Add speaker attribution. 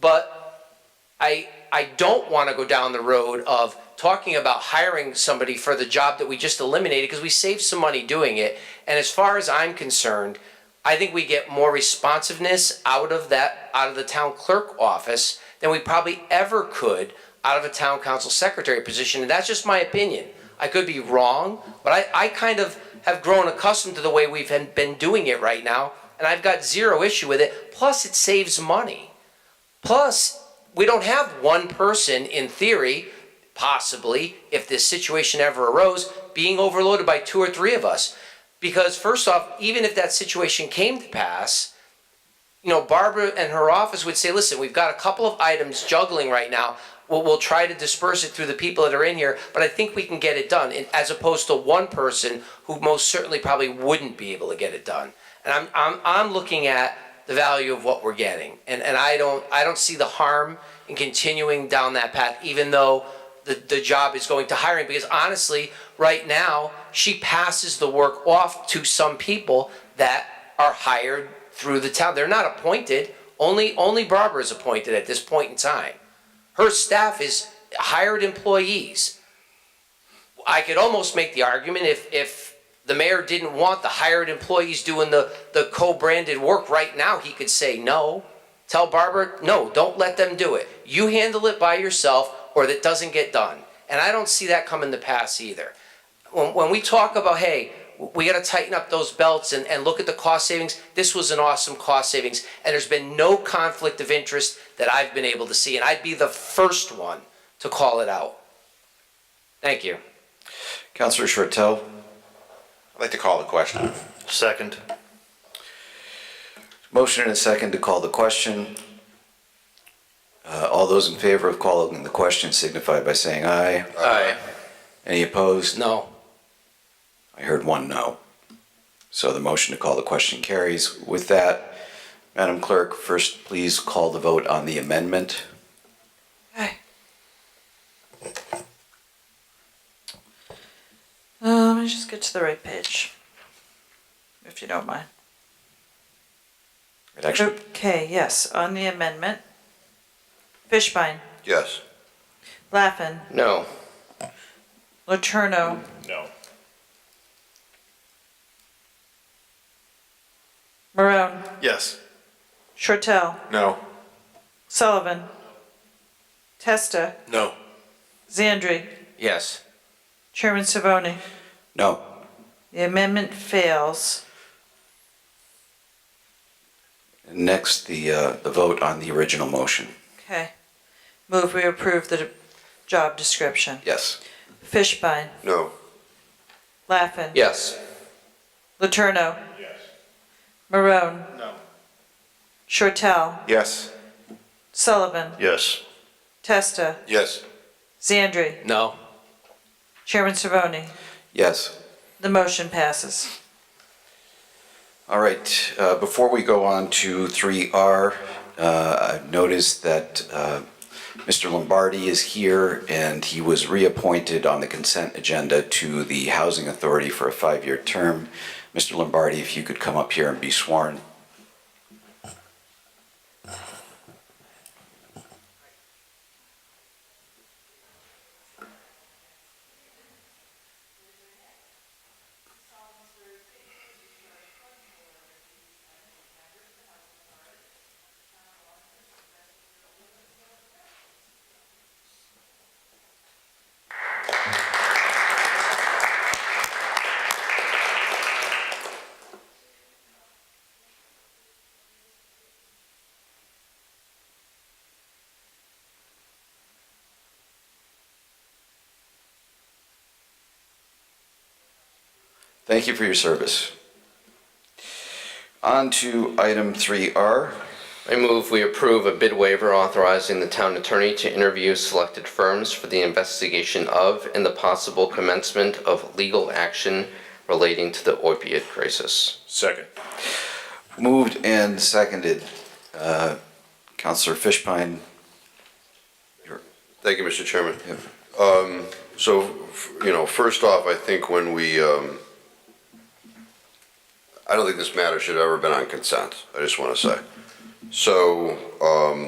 Speaker 1: But I, I don't want to go down the road of talking about hiring somebody for the job that we just eliminated because we saved some money doing it. And as far as I'm concerned, I think we get more responsiveness out of that, out of the town clerk office than we probably ever could out of a town council secretary position. And that's just my opinion. I could be wrong, but I, I kind of have grown accustomed to the way we've been- been doing it right now. And I've got zero issue with it. Plus, it saves money. Plus, we don't have one person, in theory, possibly, if this situation ever arose, being overloaded by two or three of us. Because first off, even if that situation came to pass, you know, Barbara and her office would say, listen, we've got a couple of items juggling right now. We'll, we'll try to disperse it through the people that are in here, but I think we can get it done, and- as opposed to one person who most certainly probably wouldn't be able to get it done. And I'm, I'm, I'm looking at the value of what we're getting. And, and I don't, I don't see the harm in continuing down that path, even though the, the job is going to hiring. Because honestly, right now, she passes the work off to some people that are hired through the town. They're not appointed. Only, only Barbara is appointed at this point in time. Her staff is hired employees. I could almost make the argument if, if the mayor didn't want the hired employees doing the, the co-branded work right now, he could say no. Tell Barbara, no, don't let them do it. You handle it by yourself or that doesn't get done. And I don't see that coming to pass either. When, when we talk about, hey, we gotta tighten up those belts and, and look at the cost savings, this was an awesome cost savings. And there's been no conflict of interest that I've been able to see, and I'd be the first one to call it out. Thank you.
Speaker 2: Councillor Shortell,
Speaker 3: I'd like to call the question.
Speaker 4: Second.
Speaker 2: motion and a second to call the question. Uh, all those in favor of calling the question signify by saying aye.
Speaker 4: Aye.
Speaker 2: Any opposed?
Speaker 1: No.
Speaker 2: I heard one no. So the motion to call the question carries. With that, Madam Clerk, first please call the vote on the amendment.
Speaker 5: Uh, let me just get to the right page, if you don't mind.
Speaker 2: It actually,
Speaker 5: Okay, yes, on the amendment. Fishbein,
Speaker 3: Yes.
Speaker 5: Laffin,
Speaker 1: No.
Speaker 5: Laterno,
Speaker 4: No.
Speaker 5: Marone,
Speaker 4: Yes.
Speaker 5: Shortell,
Speaker 3: No.
Speaker 5: Sullivan, Testa,
Speaker 4: No.
Speaker 5: Zandri,
Speaker 1: Yes.
Speaker 5: Chairman Savoni.
Speaker 2: no.
Speaker 5: The amendment fails.
Speaker 2: Next, the, uh, the vote on the original motion.
Speaker 5: Okay. Move we approve the job description.
Speaker 2: Yes.
Speaker 5: Fishbein,
Speaker 3: No.
Speaker 5: Laffin,
Speaker 1: Yes.
Speaker 5: Laterno. Yes. Marone. No. Shortell,
Speaker 3: Yes.
Speaker 5: Sullivan,
Speaker 4: Yes.
Speaker 5: Testa,
Speaker 3: Yes.
Speaker 5: Zandri,
Speaker 1: No.
Speaker 5: Chairman Savoni.
Speaker 2: Yes.
Speaker 5: The motion passes.
Speaker 2: All right, uh, before we go on to 3R, uh, I've noticed that uh, Mr. Lombardi is here, and he was reappointed on the consent agenda to the Housing Authority for a five-year term. Mr. Lombardi, if you could come up here and be sworn. Thank you for your service. On to item 3R.
Speaker 6: I move we approve a bid waiver authorizing the town attorney to interview selected firms for the investigation of and the possible commencement of legal action relating to the opiate crisis.
Speaker 4: Second.
Speaker 2: Moved and seconded. Uh, Counselor Fishpine,
Speaker 3: Thank you, Mr. Chairman.
Speaker 2: Yep.
Speaker 3: Um, So, f- you know, first off, I think when we, um, I don't think this matter should have ever been on consent, I just want to say. So, um,